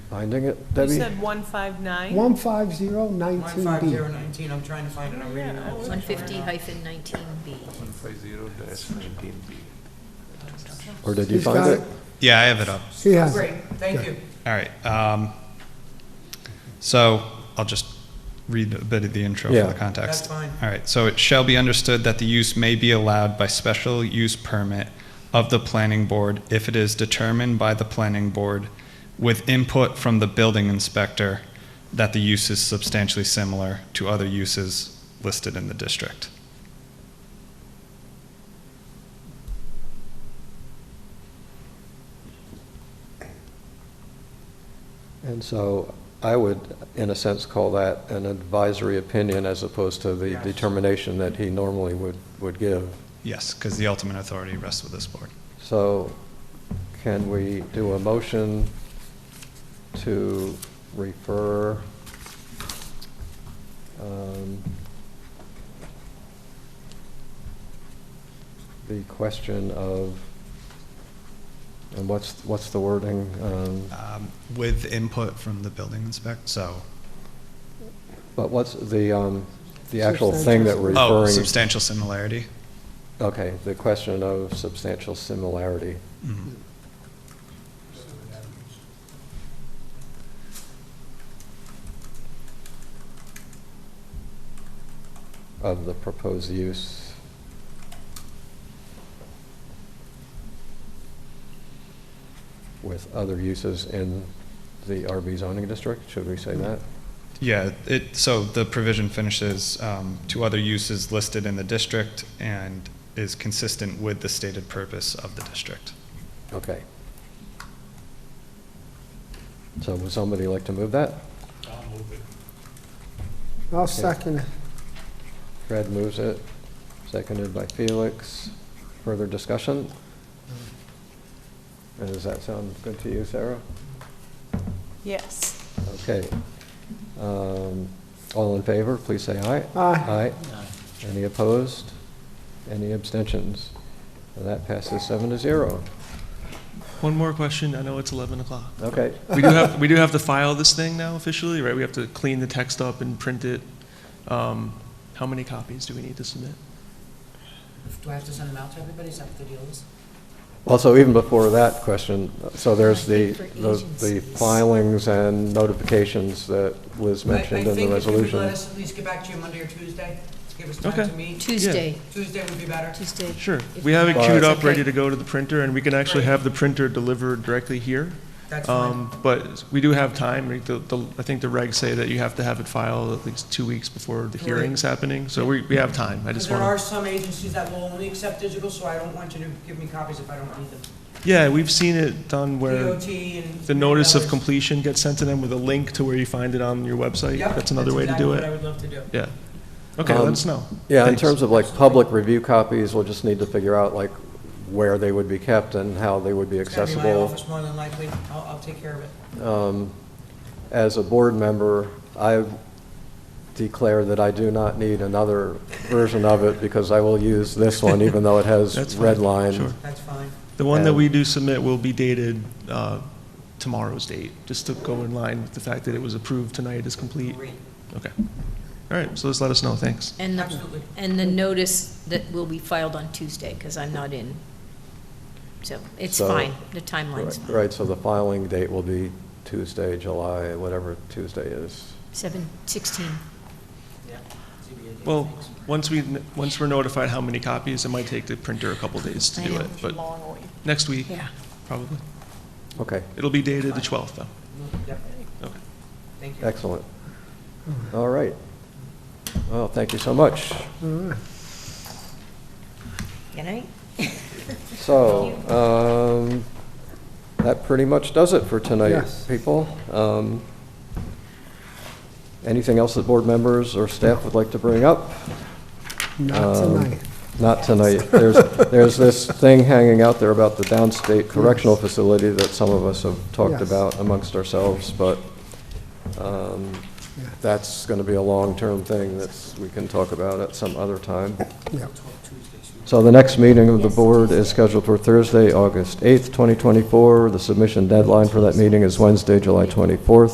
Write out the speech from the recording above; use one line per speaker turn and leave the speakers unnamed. Finding it,
You
Debbie?
said 159?
15019B.
15019, I'm trying to find it, I'm reading it.
Yeah.
150 hyphen 19B.
150-19B.
Or did you
He's
find
got
it?
it.
Yeah, I have it up.
He has it.
Great, thank you.
All right. Um, so I'll just read a bit of the intro
Yeah.
for the
That's
context.
fine.
All right. So it shall be understood that the use may be allowed by special use permit of the planning board if it is determined by the planning board with input from the building inspector that the use is substantially similar to other uses listed in the district.
And so I would, in a sense, call that an advisory opinion as opposed to the
Yes.
determination that he normally would, would give.
Yes, because the ultimate authority rests with this board.
So can we do a motion to refer um, the question of, and what's, what's the wording? Um,
Um, with input from the building inspector. So,
But what's the, um, the actual thing that we're referring?
oh, substantial similarity.
Okay, the question of substantial similarity.
Mhm.
of the proposed use. With other uses in the RB zoning district, should we say that?
Yeah, it, so the provision finishes um, to other uses listed in the district and is consistent with the stated purpose of the district.
Okay. So would somebody like to move that?
I'll second it.
Fred moves it, seconded by Felix. Further discussion? And Does that sound good to you, Sarah?
Yes.
Okay. Um, All in favor, please say aye.
Aye.
Any opposed? Any abstentions? And that passes seven to zero.
One more question. I know it's 11 o'clock.
Okay,
We do have, we do have to file this thing now officially, right? We have to clean the text up and print it. Um, How many copies do we need to submit?
Do I have to send them out to everybody, is that what the deal is?
well, so even before that question, so there's the,
I think for
the- the
agencies.
filings and notifications that was
I-
mentioned in the
I think if you could let
resolution.
us at least get back to you Monday or Tuesday, give us time
Okay.
to meet.
Tuesday,
Tuesday would be better.
Tuesday.
Sure.
If-
We have it
But-
queued up,
Okay.
ready to go to the printer, and we can actually have the printer delivered directly here.
That's fine.
Um, But we do have time. We- the- the- I think the regs say that you have to have it filed at least two weeks before the
Right.
hearing's happening. So we, we have time.
Because
I just
there
want
are some agencies that will only accept digital, so I don't want you to give me copies if I don't need them.
to, yeah, we've seen it done where
DOT and.
the notice of
others.
completion gets sent to them with a link to where you find it on your website.
Yep,
That's another way to
exactly
do
what I
it.
would love to do.
Yeah. Okay,
Um,
let us know.
Yeah, in
Thanks.
terms of like public review copies, we'll just need to figure out like where they would be kept and how they would be
It's gonna be my
accessible.
office more than likely, I'll, I'll take care of it.
As a board member, I declare that I do not need another version of it because I will use this one even though it
That's
has
fine,
red line.
sure.
That's fine.
The one that
And-
we do submit will be dated uh, tomorrow's date, just to go in line with the fact that it was approved tonight is complete.
Great.
Okay. All right, so just let us know, thanks.
And the,
Absolutely.
and the notice that will be filed on Tuesday, because I'm not in. So it's
So-
fine, the timeline's
Right-
fine.
Right, so the filing date will be Tuesday, July, whatever Tuesday is.
7, 16.
Yeah. ZBA did
Well,
things.
once we, once we're notified how many copies, it might take the printer a couple days to
I
do
know.
it, but
Long way.
next week,
Yeah.
probably.
Okay,
It'll be dated the 12th, though.
Yep,
Okay.
thank you.
excellent. All right. Well, thank you so much.
Good night.
So, um, that pretty much does it for tonight,
Yes.
people. Um, Anything else that board members or staff would like to bring up?
Not tonight.
Not tonight. There's, there's this thing hanging out there about the downstate correctional facility that some of us have talked
Yes.
about amongst ourselves, but um,
Yeah.
that's going to be a long-term thing that we can talk about at some other time.
Yeah.
Tuesday,
So the next meeting of the board is scheduled for Thursday, August 8th, 2024. The submission deadline for that meeting is Wednesday, July 24th.